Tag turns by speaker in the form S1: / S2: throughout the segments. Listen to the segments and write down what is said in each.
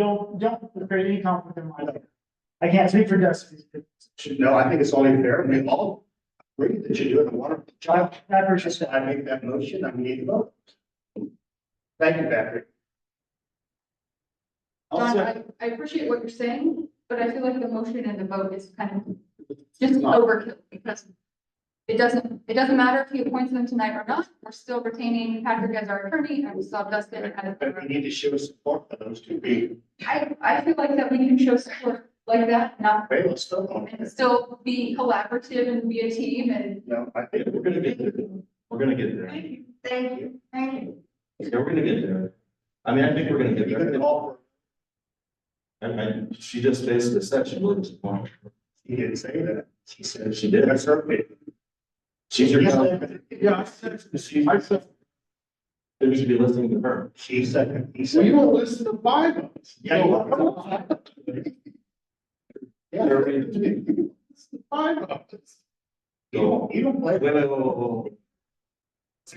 S1: Don't, don't create any conflict in my life. I can't speak for Dusty.
S2: Should know, I think it's only fair, we all agree that you do it, and want to,
S1: I
S2: child,
S1: I appreciate
S2: just,
S1: that.
S2: I make that motion, I need a vote. Thank you, Patrick.
S3: John,
S2: Also,
S3: I, I appreciate what you're saying, but I feel like the motion and the vote is kind of just
S2: Not-
S3: overkill because it doesn't, it doesn't matter if he appoints them tonight or not. We're still retaining Patrick as our attorney and we still have Dustin as.
S2: but we need to show support for those two being,
S3: I, I feel like that we can show support like that, not,
S2: hey, let's go on.
S3: and still be collaborative and be a team and.
S2: No, I think we're gonna get there,
S4: We're gonna get there.
S3: Thank you. Thank you.
S4: Yeah, we're gonna get there. I mean, I think we're gonna
S2: if
S4: get
S2: you're gonna
S4: there.
S2: call for,
S4: And I, she just basically said she lived in Orange.
S2: he didn't say that, she said,
S4: She did.
S2: that's her opinion.
S4: She's your cousin.
S2: Yeah, I said, she, I said,
S4: Maybe you should be listening to her.
S2: she said, he said.
S5: Well, you don't listen to five of us.
S2: Yeah, you are.
S5: Yeah, they're ready to do it. Five of us.
S2: You don't, you don't play.
S4: Wait, wait, wait, wait, wait.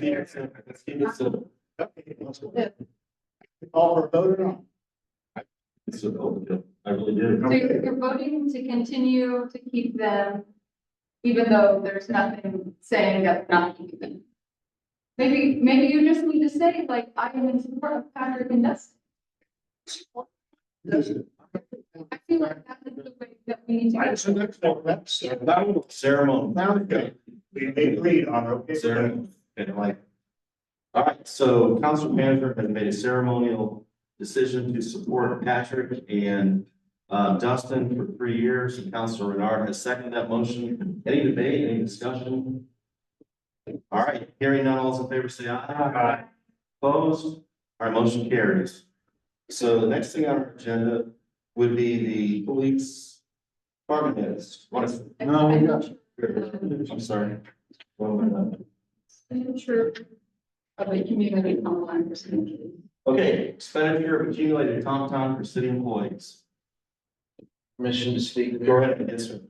S2: Yeah.
S4: Let's keep it simple.
S2: Okay, let's go ahead. Call for a vote or not?
S4: It's an open deal. I really did.
S3: So you're you're voting to continue to keep them, even though there's nothing saying that they're not keeping them. Maybe, maybe you just need to say, like, I am in support of Patrick and Dustin. I feel like that is the way that we need to
S2: I
S3: go.
S2: just look for that, so
S5: That one,
S4: Ceremony.
S5: now they go.
S2: we agreed on, okay?
S4: Ceremony. And like. All right, so council manager has made a ceremonial decision to support Patrick and uh, Dustin for three years. And Council Renard has seconded that motion. Any debate, any discussion? All right, hearing none, all's in favor, say aye.
S2: Aye.
S4: Opposed? Our motion carries. So the next thing on our agenda would be the police department heads. What is,
S5: No, we got
S4: I'm sorry. Well, uh, I'm not-
S3: Signature of the community online percentage.
S4: Okay, expenditure of accumulated comp time for city employees.
S6: permission to speak.
S4: Go ahead, yes, sir.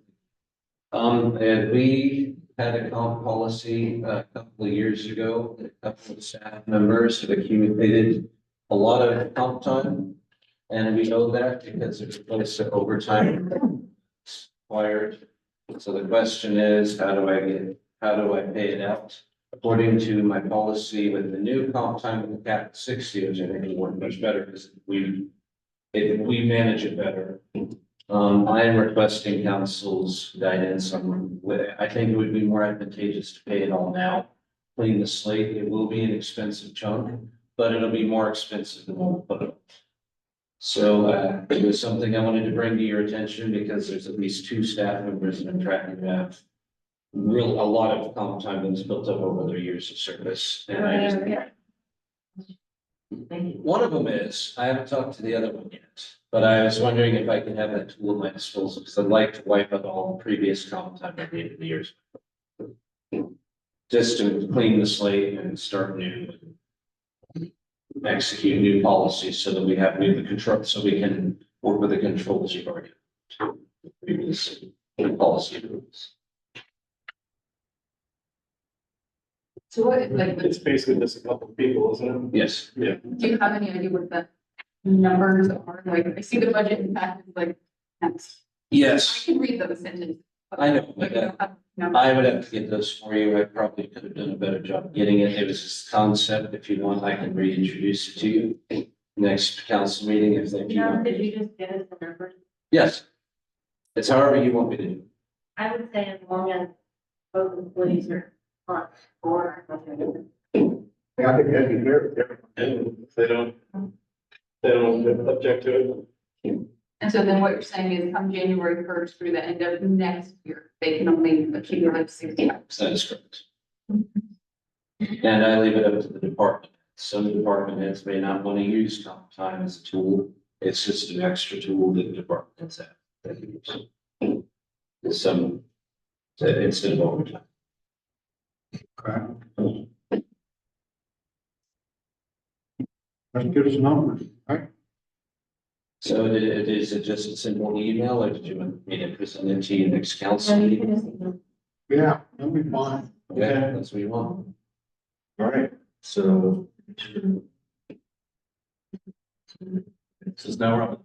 S6: Um, and we had a comp policy uh, a couple of years ago, that a couple of staff members have accumulated a lot of comp time. And we know that because it was overtime required. So the question is, how do I get, how do I pay it out? According to my policy with the new comp time with cap at six years, I think it worked much better because we, if we manage it better. Um, I am requesting council's guidance on, wh- I think it would be more advantageous to pay it all now. Clean the slate, it will be an expensive chunk, but it'll be more expensive than what we put up. So, uh, it was something I wanted to bring to your attention because there's at least two staff members that I'm tracking that. have Real, a lot of comp time that's built up over their years of service and I just. One of them is, I haven't talked to the other one yet, but I was wondering if I can have that tool at my disposal, because I'd like to wipe out all previous comp time at the end of the years. Just to clean the slate and start new. and Execute new policies so that we have new control, so we can work with the controls you've already. Previous policy rules.
S3: So what, like,
S5: It's basically just a couple of people, isn't
S6: Yes.
S3: do you have any idea what the numbers are? Like, I see the budget impact, is like, that's, I
S6: Yes,
S3: can read those sentences. but
S6: I know,
S3: I
S6: but uh,
S3: don't have numbers.
S6: I would have to get those for you. I probably could have done a better job getting it. It was this concept. If you want, I can reintroduce it to you. Next council meeting if they.
S7: No, did you just give us the numbers?
S6: Yes. It's however you want me to do.
S7: I would say as long as both employees are on board. okay.
S2: Yeah, I think that'd be fair. with everyone.
S5: it? They don't, they don't object to it.
S3: And so then what you're saying is come January first through the end of next year, they can only accumulate sixty hours.
S6: That is correct. And I leave it up to the department. Some department heads may not want to use comp time as a tool. It's just an extra tool that the department heads have. that they use. And Some, uh, instead of overtime.
S5: Let's get us numbers.
S6: So it it is it just a simple email or did you want me to present it to you next council?
S7: So you
S6: meeting?
S7: can just ignore-
S5: Yeah, that'll be fine.
S6: Yeah, that's what you want.
S4: All right, so. Since now we're up